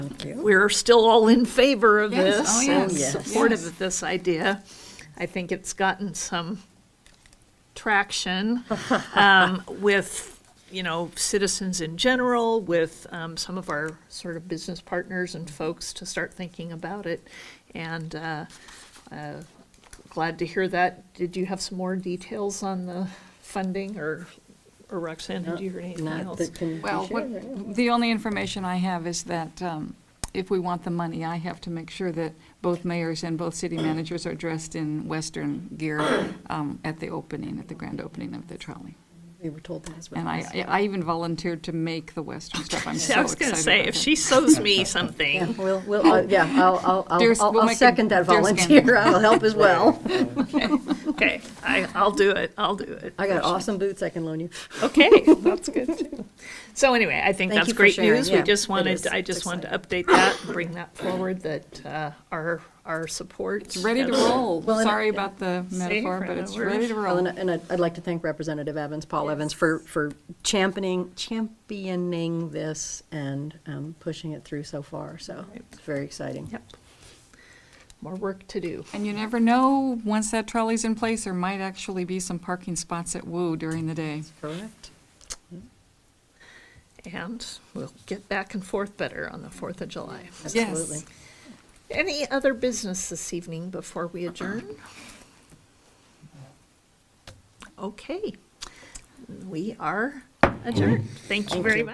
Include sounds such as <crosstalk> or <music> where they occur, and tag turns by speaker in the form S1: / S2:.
S1: Thank you.
S2: we're still all in favor of
S3: Yes.
S2: this.
S3: Oh,
S2: and
S3: yes.
S2: Supportive
S3: Yes.
S2: of this idea. I think it's gotten some
S3: <laughs>
S2: traction um, with, you know, citizens in general, with um, some of our sort of business partners and folks to start thinking about it. And uh, uh, glad to hear that. Did you have some more details on the funding or or Roxanne, did you hear anything
S1: Not
S2: else?
S1: that can be
S3: Well,
S1: shared, right?
S3: what, the only information I have is that um, if we want the money, I have to make sure that both mayors and both city managers are dressed in Western gear um, at the opening, at the grand opening of the trolley.
S1: We were told that as well.
S3: And I, I even volunteered to make the Western stuff. I'm
S2: See,
S3: so
S2: I was going
S3: excited
S2: to say,
S3: about
S2: if
S3: that.
S2: she sews me
S1: Yeah,
S2: something,
S1: we'll, we'll, uh, yeah, I'll, I'll-
S3: Dear-
S1: I'll, I'll,
S3: we'll
S1: I'll
S3: make a
S1: second that
S3: deer skin.
S1: volunteer. I'll help as well.
S2: okay, I, I'll do it, I'll do it.
S1: I got awesome boots I can loan you. <laughs>
S2: Okay, that's good too. So anyway, I think
S1: Thank
S2: that's
S1: you for
S2: great
S1: sharing.
S2: news.
S1: Yeah,
S2: We
S1: it
S2: just
S1: is.
S2: wanted, I
S1: It's
S2: just wanted to update that, and bring that forward, that uh, our, our support.
S3: It's ready to roll.
S1: Well, and I-
S3: Sorry about the metaphor, but it's ready to
S1: Well,
S3: roll.
S1: and I- and I'd, I'd like to thank Representative Evans, Paul Evans, for, for championing, championing this and um, pushing it through so far, so it's very exciting.
S2: Yep. More work to do.
S3: And you never know, once that trolley's in place, there might actually be some parking spots at Woo during the day.
S1: Correct.
S2: And we'll get back and forth better on the Fourth of July.
S1: Absolutely.
S2: Any other business this evening before we adjourn? Okay, we are adjourned. Thank you very much.